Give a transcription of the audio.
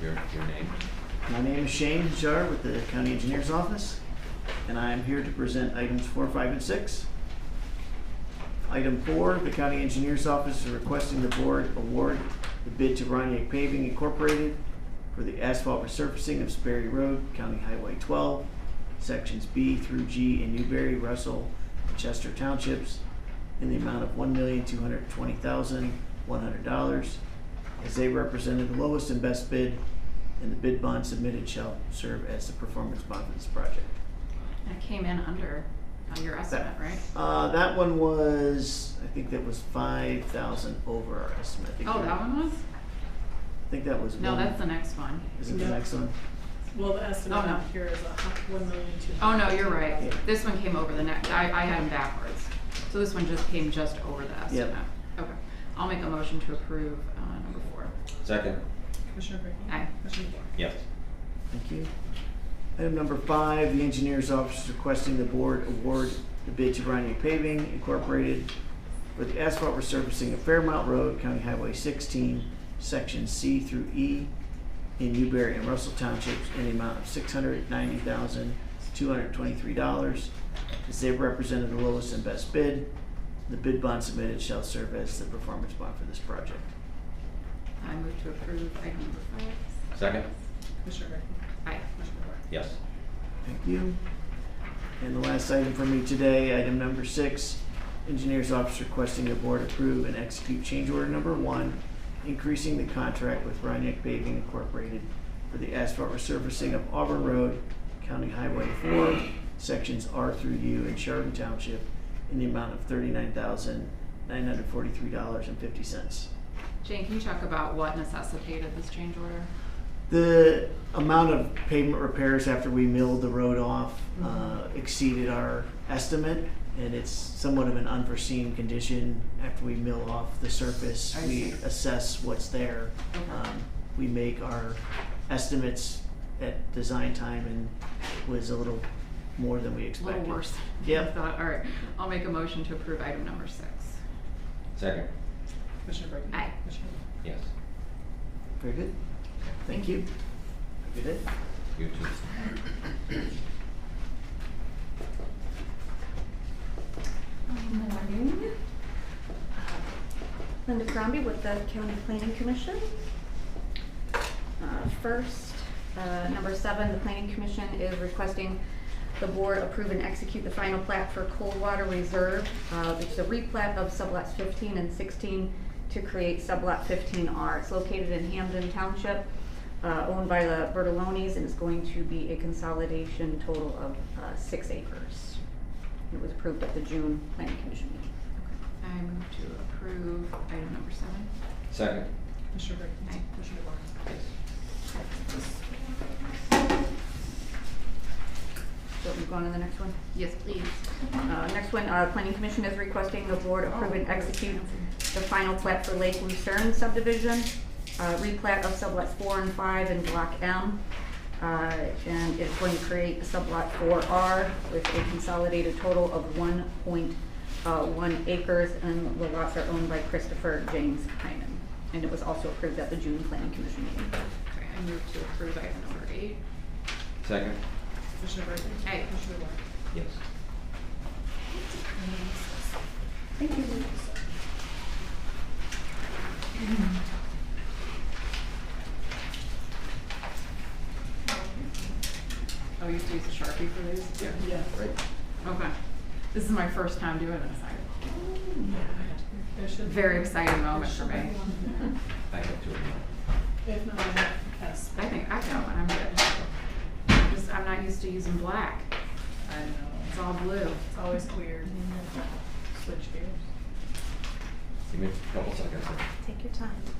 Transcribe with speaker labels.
Speaker 1: your, your name?
Speaker 2: My name is Shane Jar with the County Engineer's Office, and I am here to present items four, five, and six. Item four, the County Engineer's Office is requesting the board award the bid to Roniak Paving Incorporated for the asphalt resurfacing of Sperry Road, County Highway twelve, sections B through G in Newberry, Russell, and Chester Townships, in the amount of one million, two hundred twenty thousand, one hundred dollars, as they represented the lowest and best bid and the bid bond submitted shall serve as the performance bond for this project.
Speaker 3: That came in under uh, your estimate, right?
Speaker 2: Uh, that one was, I think that was five thousand over our estimate. I think
Speaker 3: Oh,
Speaker 2: we-
Speaker 3: that one was?
Speaker 2: I think that was one.
Speaker 3: No, that's the next one.
Speaker 2: Is it the
Speaker 4: No.
Speaker 2: next one?
Speaker 4: Well, the estimate
Speaker 3: Oh, no.
Speaker 4: up here is a hu- one million two
Speaker 3: Oh,
Speaker 4: hundred.
Speaker 3: no, you're right.
Speaker 2: Yeah.
Speaker 3: This one came over the next, I, I had them backwards. So this one just came just over the estimate. Okay. I'll make a motion to approve, uh, number four.
Speaker 1: Second.
Speaker 4: Commissioner Brinkley?
Speaker 3: Oh, Aye.
Speaker 4: Commissioner DeBoer?
Speaker 1: Yes.
Speaker 2: Thank you. Item number five, the engineer's office is requesting the board award the bid to Bryony Paving Incorporated for the asphalt resurfacing of Fairmount Road, County Highway sixteen, section C through E in Newberry and Russell Townships in the amount of six hundred ninety thousand, two hundred twenty-three dollars. As they represented the lowest and best bid, the bid bond submitted shall serve as the performance bond for this project.
Speaker 3: I move to approve item number five.
Speaker 1: Second?
Speaker 4: Commissioner Brinkley?
Speaker 3: Aye.
Speaker 4: Commissioner DeBoer?
Speaker 1: Yes.
Speaker 2: Thank you. And the last item for me today, item number six, engineer's office requesting the board approve and execute change order number one, increasing the contract with Rhinebeck Paving Incorporated for the asphalt resurfacing of Auburn Road, County Highway four, sections R through U in Sheridan Township in the amount of thirty-nine thousand, nine hundred forty-three dollars and fifty cents.
Speaker 3: Jane, can you talk about what necessitated this change order?
Speaker 2: The amount of pavement repairs after we milled the road off uh, exceeded our estimate, and it's somewhat of an unforeseen condition. After we mill off the surface,
Speaker 3: I
Speaker 2: we
Speaker 3: see.
Speaker 2: assess what's there.
Speaker 3: Okay.
Speaker 2: Um, We make our estimates at design time and was a little more than we
Speaker 3: A little
Speaker 2: expected.
Speaker 3: worse. than I
Speaker 2: Yep.
Speaker 3: thought. All right. I'll make a motion to approve item number six.
Speaker 1: Second?
Speaker 4: Commissioner Brinkley?
Speaker 3: Aye.
Speaker 4: Commissioner DeBoer?
Speaker 1: Yes.
Speaker 2: Very good. Thank you. Have a Good day.
Speaker 1: You too.
Speaker 5: Good morning. Linda Crombie with the County Planning Commission. Uh, First, uh, number seven, the Planning Commission is requesting the board approve and execute the final plat for Coldwater Reserve, uh, which is a replat of sublots fifteen and sixteen to create sublot fifteen R. It's located in Hamden Township, uh, owned by the Bertolonis, and it's going to be a consolidation total of uh, six acres. It was approved at the June planning commission meeting.
Speaker 3: I move to approve item number seven.
Speaker 1: Second?
Speaker 4: Commissioner Brinkley?
Speaker 3: Aye.
Speaker 4: Commissioner DeBoer?
Speaker 1: Yes.
Speaker 5: So we go on to the next one.
Speaker 3: Yes, please.
Speaker 5: Uh, next one, uh, planning commission is requesting the board approve and execute the final plat for Lake Lucerne subdivision, uh, replat of sublot four and five in block M. Uh, and it's going to create a sublot four R with a consolidated total of one point uh, one acres, and the lots are owned by Christopher James Hyman. And it was also approved at the June planning commission meeting.
Speaker 3: Okay, I move to approve item number eight.
Speaker 1: Second?
Speaker 4: Commissioner Brinkley?
Speaker 3: Aye.
Speaker 4: Commissioner DeBoer?
Speaker 1: Yes.
Speaker 5: Thank you.
Speaker 3: Oh, you have to use a Sharpie for these?
Speaker 1: Yeah.
Speaker 4: Yeah.
Speaker 3: Okay. This is my first time doing this. I-
Speaker 4: There should be-
Speaker 3: Very exciting moment for
Speaker 4: There should
Speaker 3: me.
Speaker 4: be one
Speaker 1: I have two of them.
Speaker 4: there. If not, I have yes.
Speaker 3: I think I got one. I'm good. I'm Just, I'm not used to using black.
Speaker 4: I know.
Speaker 3: It's all blue.
Speaker 4: It's always weird. Switch gears.
Speaker 1: Give me a couple seconds. here.
Speaker 5: Take your time.